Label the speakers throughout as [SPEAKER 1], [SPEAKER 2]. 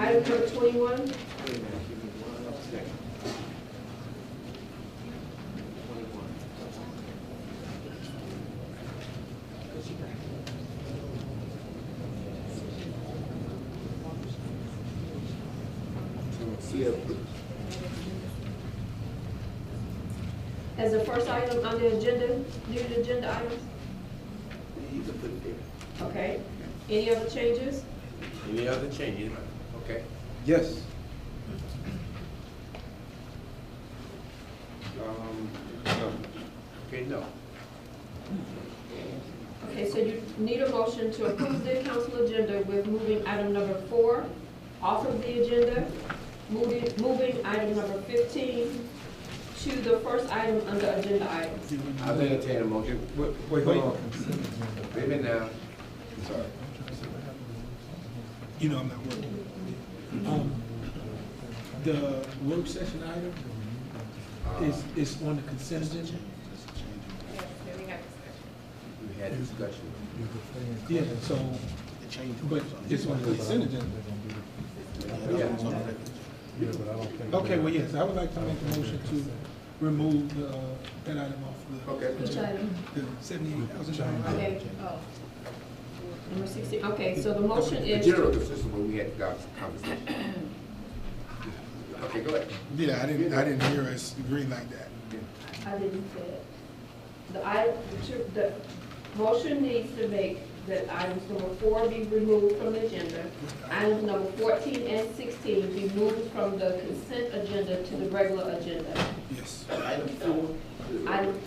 [SPEAKER 1] Item number twenty-one, as the first item on the agenda, new agenda items,
[SPEAKER 2] You can put it there.
[SPEAKER 1] okay? Any other changes?
[SPEAKER 2] Any other changes? Okay.
[SPEAKER 3] Yes.
[SPEAKER 2] Um, no. Okay, no.
[SPEAKER 1] Okay, so you need a motion to approve the council agenda with moving item number four off of the agenda, moving, moving item number fifteen to the first item under agenda items.
[SPEAKER 2] I'll entertain a motion.
[SPEAKER 3] Wait, wait, hold on.
[SPEAKER 2] Wait a minute now. I'm Sorry.
[SPEAKER 4] You know I'm not working. Um, The work session item is, is on the consent agenda?
[SPEAKER 2] We had discussion.
[SPEAKER 4] Yeah, so, but it's on the consent agenda.
[SPEAKER 2] Yeah.
[SPEAKER 4] Okay, well, yes, I would like to make a motion to remove the, uh, that item off
[SPEAKER 2] Okay.
[SPEAKER 1] Which item?
[SPEAKER 4] the, the seventy-eight thousand dollar item.
[SPEAKER 1] Okay, oh. Number sixteen, okay, so the motion
[SPEAKER 2] The
[SPEAKER 1] is.
[SPEAKER 2] general consensus when we had the conversation. Okay, go ahead.
[SPEAKER 5] Yeah, I didn't, I didn't hear us agree like that.
[SPEAKER 1] I didn't say it. The item, the, tr- the motion needs to make that items number four be removed from the agenda. Items number fourteen and sixteen be moved from the consent agenda to the regular agenda.
[SPEAKER 4] Yes.
[SPEAKER 6] Item four. to the-
[SPEAKER 1] Item,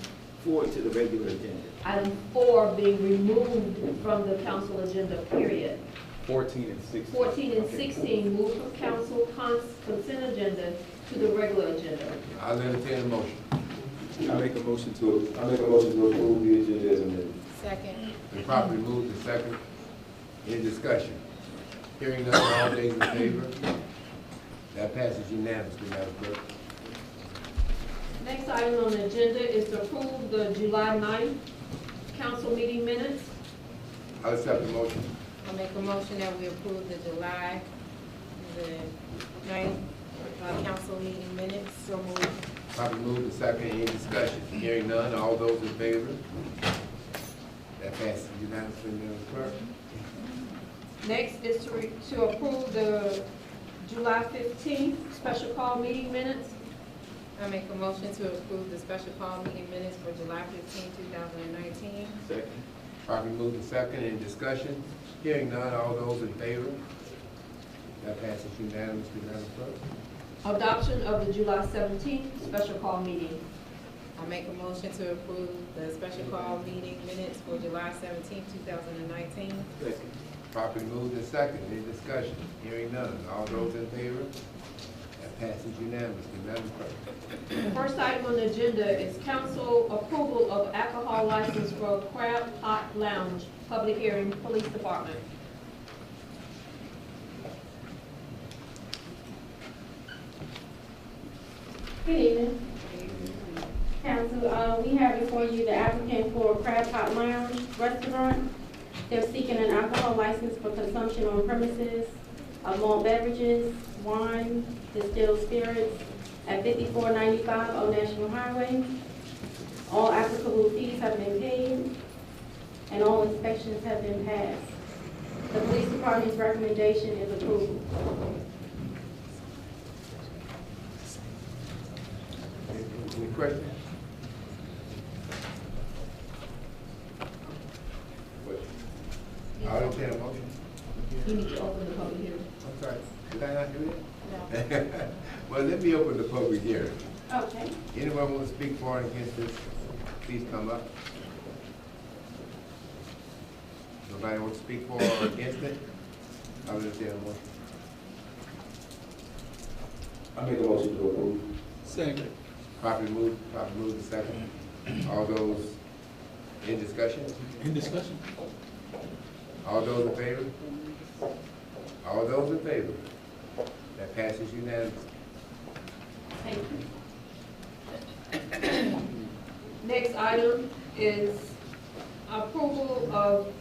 [SPEAKER 6] Four to the regular agenda.
[SPEAKER 1] item four being removed from the council agenda, period.
[SPEAKER 3] Fourteen and sixteen.
[SPEAKER 1] Fourteen and sixteen moved from council cons, consent agenda to the regular agenda.
[SPEAKER 2] I'll entertain a motion.
[SPEAKER 3] I make a motion to, I make a motion to approve the agenda as amended.
[SPEAKER 7] Second.
[SPEAKER 2] The property moved and second. Any discussion? Hearing none, all days in favor? That passes unanimously, Madam Clerk.
[SPEAKER 1] Next item on the agenda is to approve the July 9th council meeting minutes.
[SPEAKER 2] I'll accept the motion.
[SPEAKER 7] I'll make a motion that we approve the July, the ninth, uh, council meeting minutes, so moved.
[SPEAKER 2] Properly moved and second. Any discussion? Hearing none, all those in favor? That passes unanimously, Madam Clerk.
[SPEAKER 1] Next is to, re- to approve the July 15th special call meeting minutes.
[SPEAKER 7] I make a motion to approve the special call meeting minutes for July 15, 2019.
[SPEAKER 6] Second.
[SPEAKER 2] Properly moved and second. Any discussion? Hearing none, all those in favor? That passes unanimously, Madam Clerk.
[SPEAKER 1] Adoption of the July 17th special call meeting.
[SPEAKER 7] I make a motion to approve the special call meeting minutes for July 17, 2019.
[SPEAKER 6] Second.
[SPEAKER 2] Properly moved and second. Any discussion? Hearing none, all those in favor? That passes unanimously, Madam Clerk.
[SPEAKER 1] The first item on the agenda is council approval of alcohol license for Crab Pot Lounge, public hearing, police department.
[SPEAKER 8] Good evening. Council, uh, we have before you the applicant for Crab Pot Lounge Restaurant. They're seeking an alcohol license for consumption on premises of malt beverages, wine, distilled spirits at fifty-four ninety-five Old National Highway. All applicable fees have been paid and all inspections have been passed. The police department's recommendation is approval.
[SPEAKER 2] Any questions? I'll entertain a motion.
[SPEAKER 1] You need to open the public hearing.
[SPEAKER 2] I'm sorry, did I not do that? Well, let me open the public hearing.
[SPEAKER 8] Okay.
[SPEAKER 2] Anyone want to speak for or against this, please come up. Nobody want to speak for or against it? I will entertain a motion.
[SPEAKER 3] I make a motion to approve.
[SPEAKER 4] Second.
[SPEAKER 2] Properly moved, properly moved and second. All those in discussion?
[SPEAKER 4] In discussion?
[SPEAKER 2] All those in favor? All those in favor? That passes unanimously.
[SPEAKER 1] Thank you. Next item is approval of